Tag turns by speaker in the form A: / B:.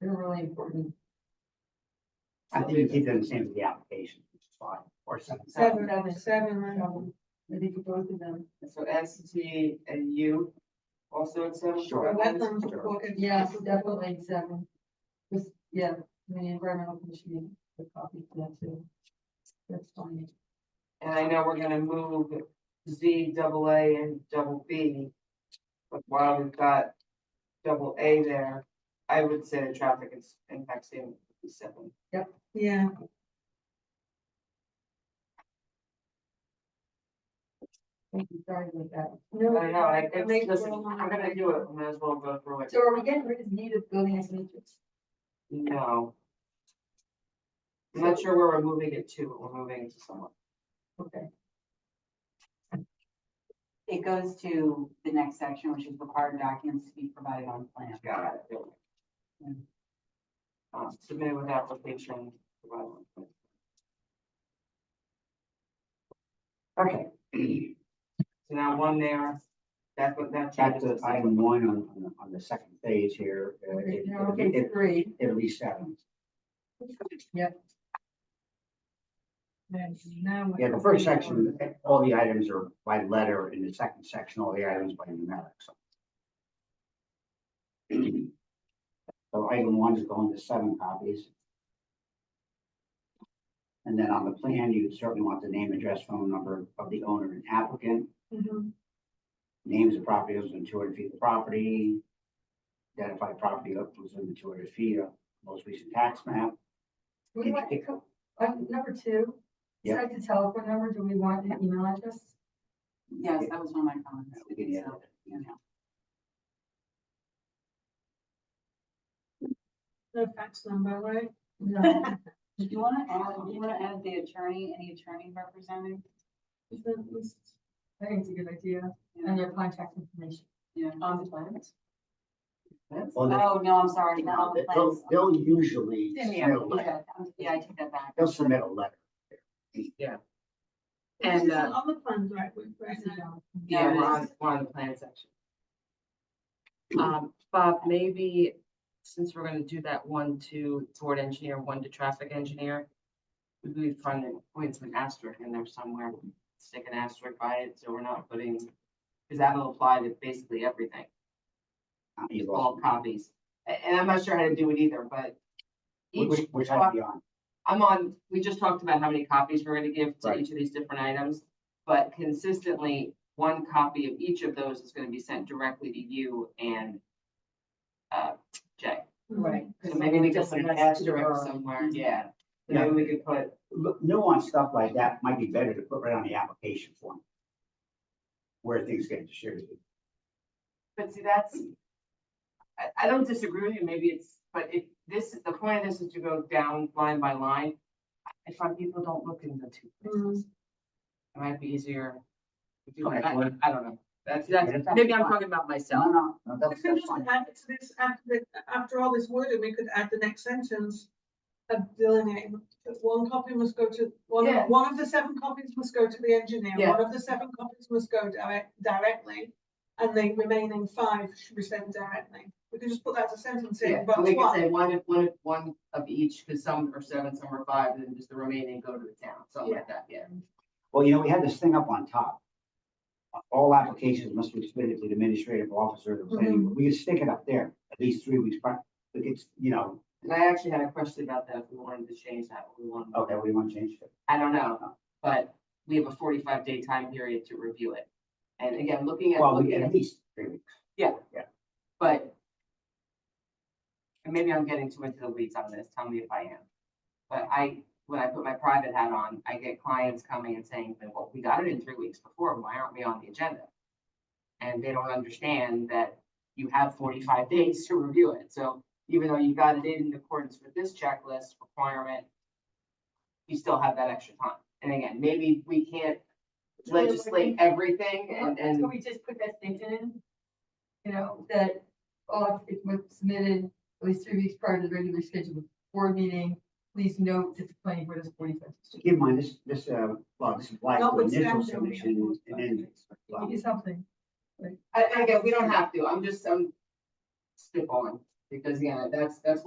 A: They're really important.
B: I think you keep them the same as the application, which is fine, or something.
A: Seven and seven, I know. I think both of them.
C: So S T and U also at seven.
B: Sure.
A: Let them
B: Sure.
A: look at, yes, definitely seven. Just, yeah, the environmental commission, the copy of that too. That's fine.
C: And I know we're gonna move Z double A and double B. But while we've got double A there, I would say the traffic is impact statement would be seven.
A: Yeah. Thank you, sorry about that.
C: I
A: No,
C: don't know, I,
A: it
C: it's,
A: makes
C: listen,
A: a lot
C: I'm
A: of-
C: gonna do it, we might as well go through it.
A: So are we getting rid of native building as matrix?
C: No. I'm not sure where we're moving it to, but we're moving it to someone.
A: Okay,
D: It goes to the next section, which is required documents to be provided on plan.
C: Got it. Um, submitted with application. provided.
D: Okay,
C: So now one there, that's what that
B: Back
C: changes.
B: to item one on, on the- on the second page here, uh, it-
A: now,
B: it'll be-
A: okay,
B: it-
A: three.
B: it'll be seven.
A: Then now we-
B: Yeah, the first section, all the items are by letter, in the second section, all the items by numeric. So So item one is going to seven copies. And then on the plan, you certainly want the name, address, phone number of the owner and applicant,
A: Mhm.
B: names of property owners within two hundred feet of the property, identify property owners within two hundred feet of most recent tax map.
A: We want to co- uh, number two.
B: Yeah.
A: Besides the telephone number, do we want an email address?
D: yes, that was one of my comments.
B: We can add
D: So, you know.
A: No fax number, right? No.
D: Do you wanna add, do you wanna add the attorney, any attorney represented?
A: Isn't this- I think it's a good idea, and their contact information.
D: Yeah.
C: On the plans?
B: Well, they-
D: Oh, no, I'm sorry, not on the
B: They'll,
D: plans.
B: they'll usually submit a letter,
D: Yeah, I'm- Yeah, I take that back.
B: they'll submit a letter.
C: And, uh,
A: the plans, right, right now.
C: yeah,
D: Yeah,
C: we're
D: it
C: on,
D: is.
C: we're on the plan section. Um, Bob, maybe, since we're gonna do that one to toward engineer, one to traffic engineer, maybe we find, it- find some asterisk in there somewhere, stick an asterisk by it, so we're not putting, because that'll apply to basically everything.
B: Uh, you lost
C: all copies. A- And I'm not sure how to do it either, but
B: Which,
C: each,
B: which- which I'd be on,
C: I'm on, we just talked about how many copies we're gonna give to
B: Right.
C: each of these different items. But consistently, one copy of each of those is gonna be sent directly to you and uh, Jay.
A: Right.
C: So maybe we could put an asterisk somewhere, yeah. So Maybe
B: Yeah.
C: we could put,
B: Lu- nuanced stuff like that might be better to put right on the application form. Where things get distributed.
C: but see, that's, I, I don't disagree with you, maybe it's, but if this, the point of this is to go down line by line. I find people don't look in the two places. It might be easier. if you- I,
B: Okay, well-
C: I don't know. That's, that's, maybe I'm talking about myself.
B: No, no, no,
E: We
B: that's,
E: could
B: that's
E: just
B: fine.
E: add to this, after, the- after all this wording, we could add the next sentence of delineating, that one copy must go to, one,
C: Yeah.
E: of- one of the seven copies must go to the engineer,
C: Yeah.
E: one of the seven copies must go direct, directly, and the remaining five should be sent directly. We could just put that as a sentence
C: Yeah,
E: in, but
C: we could
E: what,
C: say one, of- one, of- one of each, because some are seven, some are five, and then just the remaining go to the town, something like that, yeah.
B: Well, you know, we had this thing up on top. All applications must be submitted to the administrative officer, of the planning, board. we could stick it up there, at least three weeks prior. But it's, you know,
C: And I actually had a question about that, if we wanted to change that, we wanted,
B: okay, we want to change it.
C: I don't know, but we have a forty-five day time period to review it. And again, looking at,
B: Well, we
C: looking
B: get
C: at-
B: at least three weeks.
C: but and maybe I'm getting too into the weeds on this, tell me if I am. But I, when I put my private hat on, I get clients coming and saying, well, we got it in three weeks before, why aren't we on the agenda? And they don't understand that you have forty-five days to review it, so even though you got it in accordance with this checklist requirement, you still have that extra time, and again, maybe we can't legislate everything and, and.
A: Can we just put that statement in? You know, that oh, all applications submitted at least three weeks prior to the regular scheduled board meeting. Please note that the planning board is forty-five.
B: So keep in mind, this, this, uh, well, this applies to initial
E: notwithstanding. we should
B: submission and then,
A: You can do something.
C: I, I get, we don't have to, I'm just, I'm spitballing, because, yeah, that's, that's